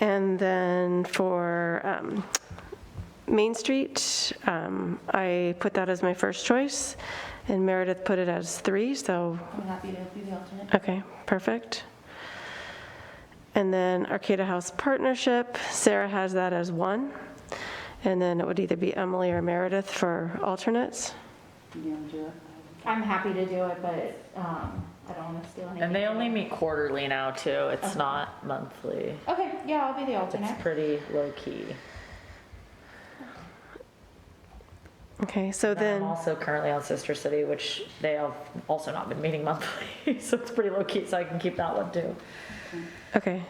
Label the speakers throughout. Speaker 1: And then for um, Main Street, um, I put that as my first choice, and Meredith put it as three, so,
Speaker 2: I'm happy to be the alternate.
Speaker 1: okay, perfect. And then Arcata House Partnership, Sarah has that as one, and then it would either be Emily or Meredith for alternates.
Speaker 2: You want to do it? I'm happy to do it, but um, I don't want to steal anything.
Speaker 3: And they
Speaker 2: from
Speaker 3: only
Speaker 2: you.
Speaker 3: meet quarterly now too. It's not monthly.
Speaker 2: Okay, yeah, I'll be the alternate.
Speaker 3: It's pretty low key.
Speaker 1: Okay, so
Speaker 3: I'm
Speaker 1: then,
Speaker 3: also currently on Sister City, which they have also not been meeting monthly, so it's pretty low key. So I can keep that one too.
Speaker 1: okay,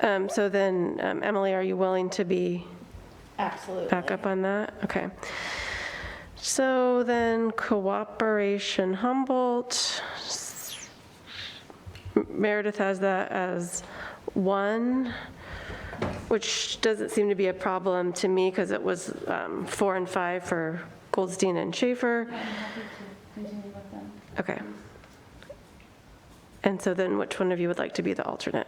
Speaker 1: Um, so then, um, Emily, are you willing to be
Speaker 2: Absolutely.
Speaker 1: back up on that? Okay. So then Cooperation Humboldt, Meredith has that as one, which doesn't seem to be a problem to me because it was um, four and five for Goldstein and Schaefer.
Speaker 2: I'm happy to continue with them.
Speaker 1: Okay. And so then which one of you would like to be the alternate?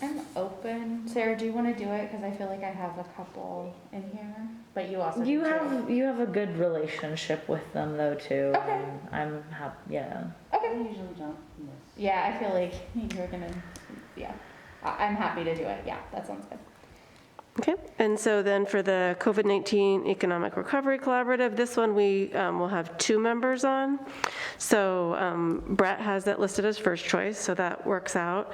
Speaker 2: I'm open. Sarah, do you want to do it? Because I feel like I have a couple in here, but you also
Speaker 3: You
Speaker 2: do
Speaker 3: have you have a good relationship with them though too.
Speaker 2: Okay.
Speaker 3: and I'm happy. Yeah.
Speaker 2: Too. Okay. I usually don't. Yeah, I feel like you're gonna. Yeah, I- I'm happy to do it. Yeah, that sounds good.
Speaker 1: Okay, and so then for the COVID-19 Economic Recovery Collaborative, this one we um, will have two members on. So um, Brett has that listed as first choice, so that works out.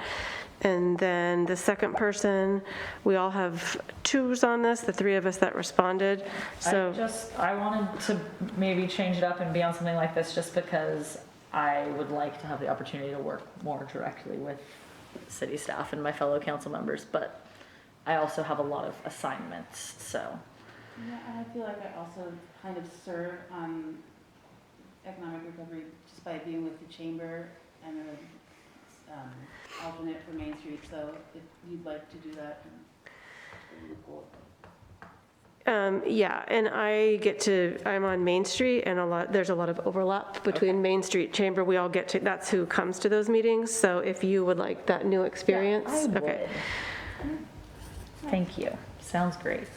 Speaker 1: And then the second person, we all have twos on this, the three of us that responded.
Speaker 3: I
Speaker 1: So,
Speaker 3: just, I wanted to maybe change it up and be on something like this just because I would like to have the opportunity to work more directly with city staff and my fellow council members, but I also have a lot of assignments, so.
Speaker 4: Yeah, and I feel like I also kind of serve on economic recovery just by being with the chamber and a um, alternate for Main Street, so if you'd like to do that. then we'll go.
Speaker 1: um, yeah, and I get to, I'm on Main Street and a lot, there's a lot of overlap between Main Street Chamber. We all get to, that's who comes to those meetings. So if you would like that new experience.
Speaker 3: I
Speaker 1: Okay.
Speaker 3: would. Thank you. Sounds great.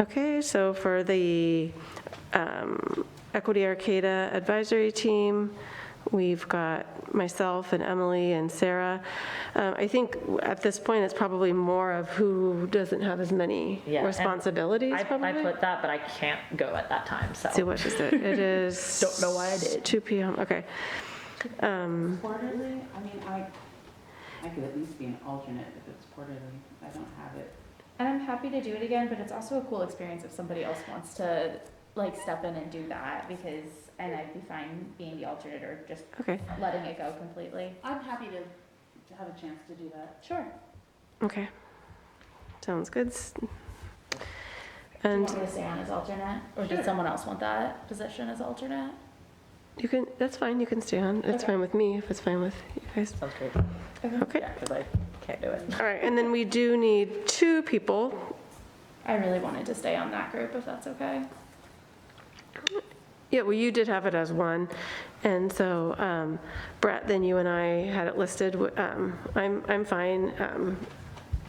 Speaker 1: Okay, so for the um, Equity Arcata Advisory Team, we've got myself and Emily and Sarah. Um, I think at this point, it's probably more of who doesn't have as many
Speaker 3: Yeah, and
Speaker 1: responsibilities,
Speaker 3: I, I
Speaker 1: probably.
Speaker 3: put that, but I can't go at that time, so.
Speaker 1: See, what is it? It is.
Speaker 3: Don't know why I did.
Speaker 1: 2 PM, okay. Um,
Speaker 4: Quarterly, I mean, I, I could at least be an alternate if it's quarterly, I don't have it.
Speaker 2: And I'm happy to do it again, but it's also a cool experience if somebody else wants to like step in and do that because, and I'd be fine being the alternate or just
Speaker 1: Okay,
Speaker 2: letting it go completely.
Speaker 4: I'm happy to, to have a chance to do that.
Speaker 2: Sure.
Speaker 1: okay. Sounds good.
Speaker 2: Do you
Speaker 1: And
Speaker 2: want me to stay on as alternate, or did someone else want that position as alternate?
Speaker 1: you can, that's fine, you can stay on. It's
Speaker 2: Okay.
Speaker 1: fine with me, if it's fine with you guys.
Speaker 3: Sounds great.
Speaker 1: Okay.
Speaker 3: Yeah, because I can't do it.
Speaker 1: All right, and then we do need two people.
Speaker 2: I really wanted to stay on that group if that's okay.
Speaker 1: Yeah, well, you did have it as one, and so um, Brett, then you and I had it listed. Um, I'm, I'm fine um,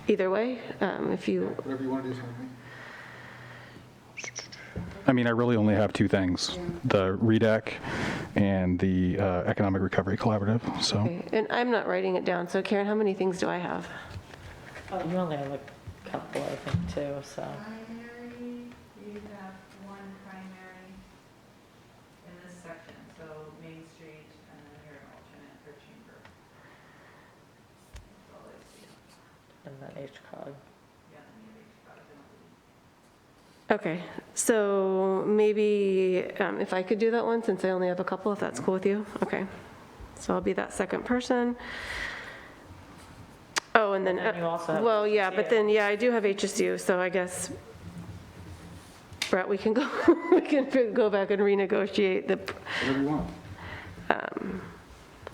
Speaker 1: either way, um, if you,
Speaker 5: Whatever you want to do, something.
Speaker 6: I mean, I really only have two things, the REDAC and the uh, Economic Recovery Collaborative, so.
Speaker 1: okay. and I'm not writing it down, so Karen, how many things do I have?
Speaker 3: Oh, You only have a couple, I think, too, so.
Speaker 7: primary, you have one primary in this section, so Main Street, and then you're an alternate for Chamber. That's all I see.
Speaker 3: And then HCOG.
Speaker 7: Yeah, then you reach out and-
Speaker 1: Okay, so maybe um, if I could do that one, since I only have a couple, if that's cool with you? Okay, so I'll be that second person. Oh, and then,
Speaker 3: And then you also have
Speaker 1: well, yeah, but
Speaker 3: HSU.
Speaker 1: then, yeah, I do have HSU, so I guess, Brett, we can go, we can go back and renegotiate the, um,
Speaker 5: Whatever you want.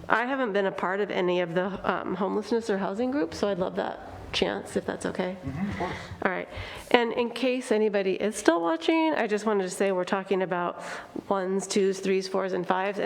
Speaker 1: I haven't been a part of any of the um, homelessness or housing groups, so I'd love that chance, if that's okay?
Speaker 5: Of course.
Speaker 1: All right. And in case anybody is still watching, I just wanted to say we're talking about ones, twos, threes, fours, and fives,